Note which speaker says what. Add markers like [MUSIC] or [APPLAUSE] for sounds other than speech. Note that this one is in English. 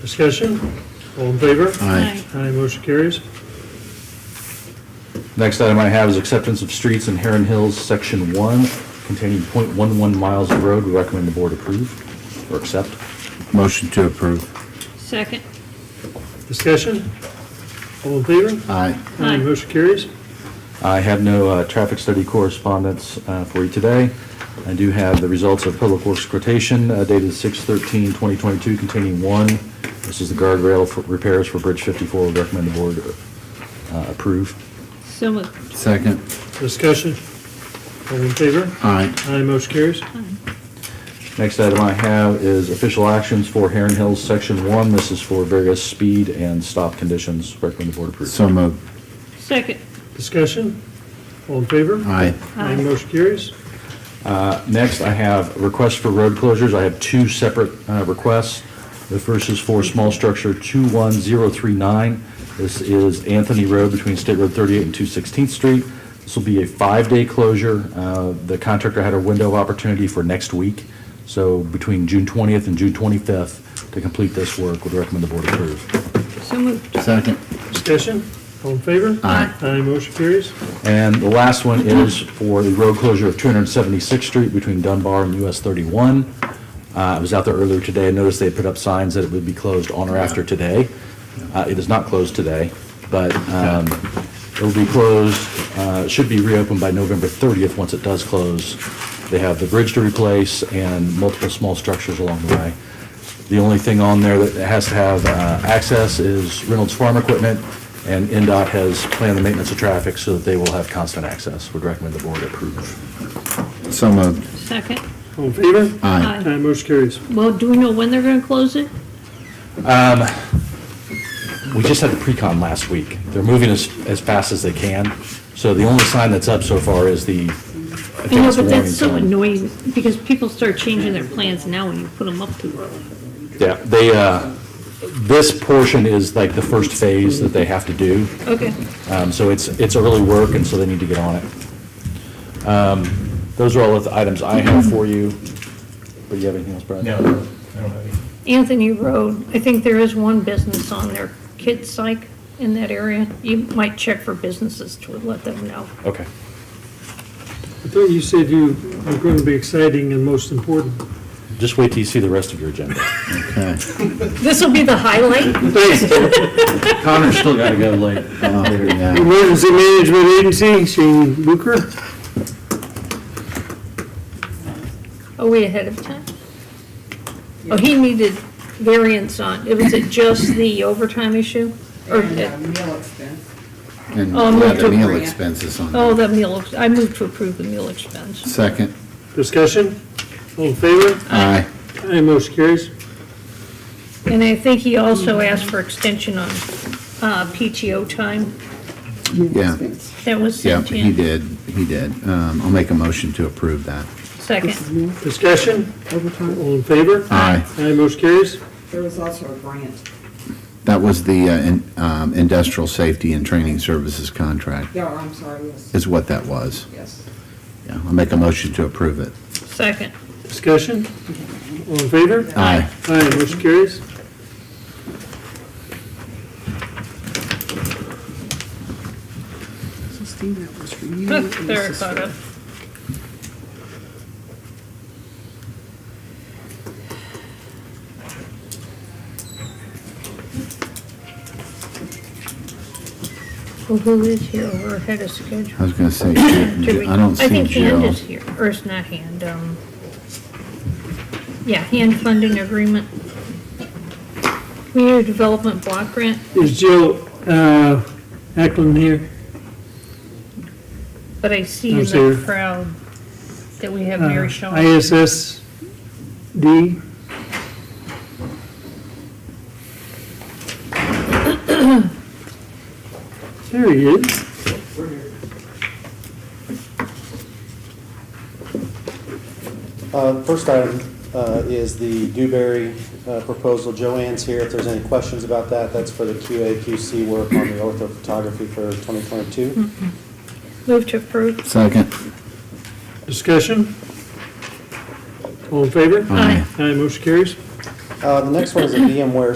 Speaker 1: Discussion? All in favor?
Speaker 2: Aye.
Speaker 1: Aye, motion carries.
Speaker 2: Next item I have is acceptance of streets in Heron Hills, Section 1, containing .11 miles of road. We recommend the board approve or accept.
Speaker 3: Motion to approve.
Speaker 4: Second.
Speaker 1: Discussion? All in favor?
Speaker 3: Aye.
Speaker 4: Aye.
Speaker 1: Motion carries.
Speaker 2: I have no uh, traffic study correspondence uh, for you today. I do have the results of public works quotation uh, dated 6/13/2022 containing one. This is the guardrail for repairs for Bridge 54. We recommend the board uh, approve.
Speaker 4: So moved.
Speaker 3: Second.
Speaker 1: Discussion? All in favor?
Speaker 3: Aye.
Speaker 1: Aye, motion carries.
Speaker 2: Next item I have is official actions for Heron Hills, Section 1. This is for various speed and stop conditions. Recommend the board approve.
Speaker 3: So moved.
Speaker 4: Second.
Speaker 1: Discussion? All in favor?
Speaker 3: Aye.
Speaker 1: Aye, motion carries.
Speaker 2: Uh, Next, I have requests for road closures. I have two separate uh, requests. The first is for small structure 21039. This is Anthony Road between State Road 38 and 216th Street. This will be a five-day closure. Uh, The contractor had a window of opportunity for next week, so between June 20th and June 25th to complete this work, would recommend the board approve.
Speaker 4: So moved.
Speaker 3: Second.
Speaker 1: Discussion? All in favor?
Speaker 3: Aye.
Speaker 1: Aye, motion carries.
Speaker 2: And the last one is for the road closure of 276th Street between Dunbar and US 31. Uh, I was out there earlier today, and noticed they had put up signs that it would be closed on or after today. Uh, It is not closed today, but um, it'll be closed, uh, should be reopened by November 30th, once it does close. They have the bridge to replace and multiple small structures along the way. The only thing on there that has to have uh, access is Reynolds Farm Equipment, and NDOT has planned the maintenance of traffic so that they will have constant access. Would recommend the board approve.
Speaker 3: So moved.
Speaker 4: [LAUGHS] Second.
Speaker 1: All in favor?
Speaker 3: Aye.
Speaker 1: Aye, motion carries.
Speaker 4: Well, do we know when they're going to close it?
Speaker 2: We just had the pre-con last week. They're moving as, as fast as they can, so the only sign that's up so far is the
Speaker 4: I know,
Speaker 2: advanced
Speaker 4: but
Speaker 2: warning
Speaker 4: that's so
Speaker 2: sign.
Speaker 4: annoying because people start changing their plans now when you put them up too early.
Speaker 2: Yeah, they, uh, this portion is like the first phase that they have to do.
Speaker 4: Okay.
Speaker 2: Um, So it's, it's early work, and so they need to get on it. Um, Those are all of the items I have for you. But you have anything else, Brad?
Speaker 5: No, I don't have any.
Speaker 4: Anthony Road, I think there is one business on there, Kid Psych in that area. You might check for businesses to let them know.
Speaker 2: Okay.
Speaker 1: I thought you said you were going to be exciting and most important.
Speaker 2: Just wait till you see the rest of your agenda.
Speaker 3: Okay.
Speaker 4: This will be the highlight.
Speaker 2: Connor's still got to go late.
Speaker 3: Oh, yeah.
Speaker 1: Emergency Management Agency, Shane Booker.
Speaker 4: Are we ahead of time? Oh, he needed variance on, was it just the overtime issue? Or,
Speaker 6: meal expense.
Speaker 3: And
Speaker 4: Oh, move
Speaker 3: yeah, the
Speaker 4: to
Speaker 3: meal
Speaker 4: approve.
Speaker 3: expenses on
Speaker 4: oh,
Speaker 3: there.
Speaker 4: the meal, ex- I moved to approve the meal expense.
Speaker 3: Second.
Speaker 1: Discussion? All in favor?
Speaker 3: Aye.
Speaker 1: Aye, motion carries.
Speaker 4: And I think he also asked for extension on uh, PTO time.
Speaker 3: Yeah.
Speaker 4: That was
Speaker 3: Yeah,
Speaker 4: sent
Speaker 3: he
Speaker 4: in.
Speaker 3: did. He did. Um, I'll make a motion to approve that.
Speaker 4: Second.
Speaker 1: Discussion? All in favor?
Speaker 3: Aye.
Speaker 1: Aye, motion carries.
Speaker 6: There was also a grant.
Speaker 3: That was the uh, in- um, industrial safety and training services contract
Speaker 6: Yeah, I'm sorry, yes,
Speaker 3: is what that was.
Speaker 6: yes.
Speaker 3: Yeah, I'll make a motion to approve it.
Speaker 4: Second.
Speaker 1: Discussion? All in favor?
Speaker 3: Aye.
Speaker 1: Aye, motion carries.
Speaker 4: There, I caught up. Well, who is here? We're ahead of
Speaker 3: I
Speaker 4: schedule.
Speaker 3: was going
Speaker 4: [COUGHS]
Speaker 3: to say,
Speaker 4: Do we-
Speaker 3: I don't see
Speaker 4: think Hand
Speaker 3: Jill.
Speaker 4: is here, or it's not Hand, um, yeah, Hand Funding Agreement. Community Development Block Grant,
Speaker 1: Is Jill uh, Ackland here?
Speaker 4: but I see in
Speaker 1: Who's here? Uh,
Speaker 4: the crowd that we have Mary Shaw.
Speaker 1: ISSD? [COUGHS] There he is.
Speaker 7: Uh, First item uh, is the Dewberry uh, proposal. Joanne's here, if there's any questions about that, that's for the QA, QC work on the orthophotography for 2022.
Speaker 4: Move to approve.
Speaker 3: Second.
Speaker 1: Discussion? All in favor?
Speaker 4: Aye.
Speaker 1: Aye, motion carries.
Speaker 7: Uh, The next one is a VMware